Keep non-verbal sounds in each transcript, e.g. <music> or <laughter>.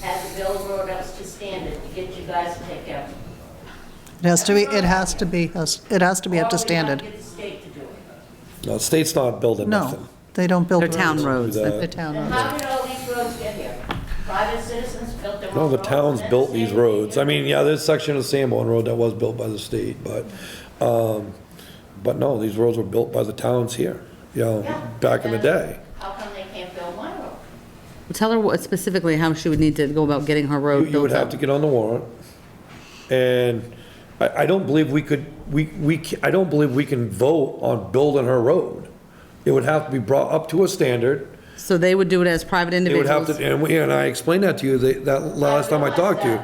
have the build road up to standard to get you guys to take out. It has to be, it has to be, it has to be up to standard. Or we have to get the state to do it. No, the state's not building No, nothing. they don't build They're roads. town roads. The- They're town Then roads. how did all these roads get here? Private citizens built their own No, the roads, towns and built the these state did. roads. I mean, yeah, there's a section of Sanborn Road that was built by the state, but, um, but no, these roads were built by the towns here, you Yeah. know, back in the day. How come they can't build my road? Tell her what specifically how she would need to go about getting her You road you would built have up. to get on the warrant. And I, I don't believe we could, we, we, ca- I don't believe we can vote on building her road. It would have to be brought up to a standard. So they would do it as private It would individuals. have to, and we, and I explained that to you, that, that last time I talked to you,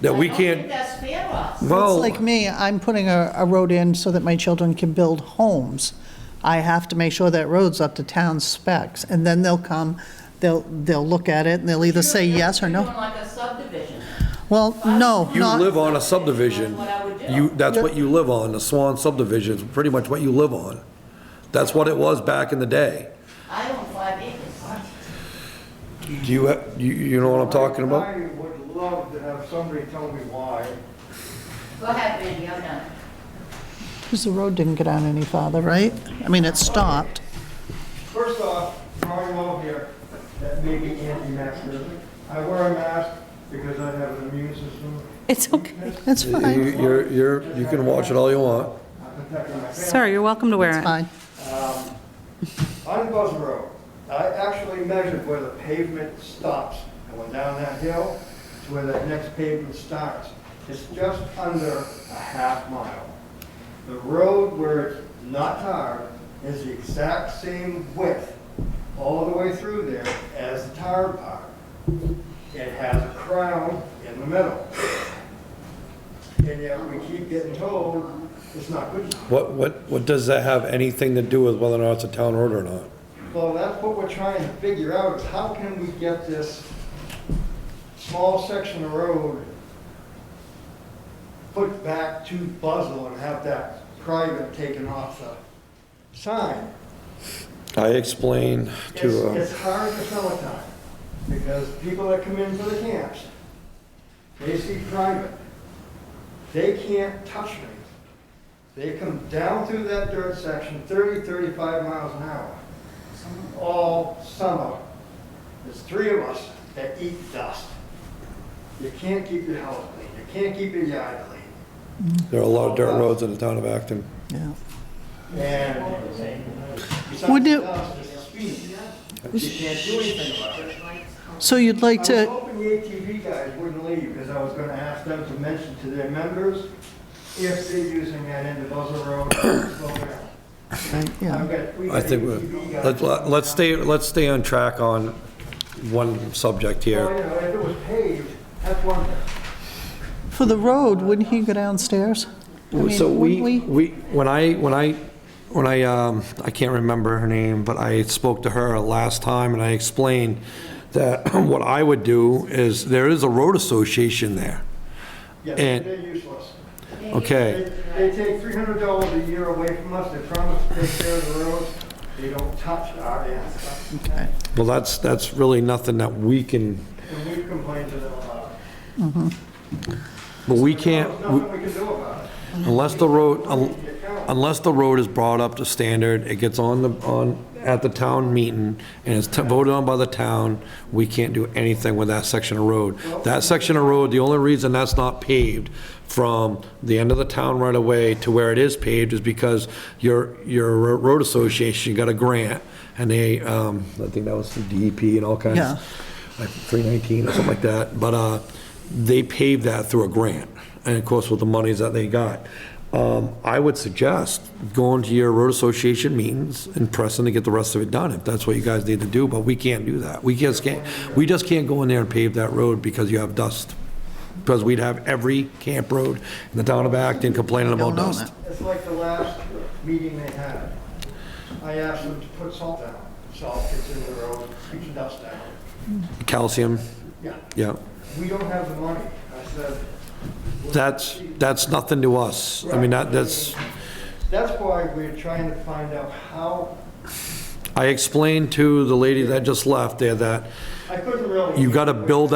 that we I don't think can't, that's fair, Ross. It's well. like me, I'm putting a, a road in so that my children can build homes. I have to make sure that road's up to town specs, and then they'll come, they'll, they'll look at it, and they'll either say You're- yes or you're no. doing like a subdivision. Well, no, You live not, on a subdivision. That's what I would do. You, that's what you live on, the Swan subdivision is pretty much what you live on. That's what it was back in the day. I own five acres. Do you, ha- you, you know what I'm talking about? I would love to have somebody tell me why. Go ahead, Randy, I'm done. because the road didn't get on any farther, right? I mean, it stopped. First off, Ron Lowe here, that may be anti-masker. I wear a mask because I have an immune system. It's okay. It's You- fine, You're, you're, you can watch it all you want. I'm protecting my family. Sir, you're welcome to wear it. fine. On Um, Buzz Road, I actually measured where the pavement stops. I went down that hill to where that next pavement starts. It's just under a half mile. The road where it's not tarred is the exact same width all the way through there as the tarred part. It has a crown in the middle. And yet we keep getting told it's not good enough. What, what, what does that have anything to do with whether or not it's a town road or not? Well, that's what we're trying to figure out, is how can we get this small section of road put back to Buzzell and have that private taken off the sign? I explained It's, to, uh, it's hard to tell at times, because people that come in for the camps, they see private. They can't touch me. They come down through that dirt section 30, 35 miles an hour. All summer. There's three of us that eat dust. You can't keep your house clean, you can't keep your yard clean. there are a lot of dirt roads in the town of Acton. Yeah. And besides Would you- the dust, there's the speed. You can't do anything about it. So you'd like I was to, hoping the ATV guys wouldn't leave, because I was gonna ask them to mention to their members if they're using that end of Buzzell Road, <coughs> slow down. right, I've yeah, got three I think, ATV we- guys. let's, let's stay, let's stay on track on one subject Well, here. you Oh, know, if it was paved, that's one thing. for the road, wouldn't he go downstairs? I mean, So we, wouldn't we, when I, when I, when I, um, I can't remember her name, but I spoke to her last time and I explained that <clears throat> what I would do is, there is a road association there, Yes, And- they're useless. They, okay? they take three hundred dollars a year away from us, they promise to take care of the roads, they don't touch our end. Okay. Well, that's, that's really nothing that we can, And we've complained to them about it. but we There's can't, we- nothing we can do about it. unless the road, unless the road is brought up to standard, it gets on the, on, at the town meeting, and it's voted on by the town, we can't do anything with that section of road. That section of road, the only reason that's not paved from the end of the town right away to where it is paved is because your, your road association got a grant, and they, um, I think that was the DEP and all kinds Yeah. like 319 or something like that, but uh, they paved that through a grant, and of course, with the monies that they got. Um, I would suggest going to your road association meetings and pressing to get the rest of it done, if that's what you guys need to do, but we can't do that. We just can't, we just can't go in there and pave that road because you have dust, because we'd have every camp road in the town of Acton complaining about Don't own dust. it. It's like the last meeting they had. I asked them to put salt down. Salt gets in the road, keeps dust down. Calcium, Yeah, yeah. we don't have the money. I said, That's, that's nothing to us. I mean, that, that's, that's why we're trying to find out how, I explained to the lady that just left there that I couldn't really. you gotta build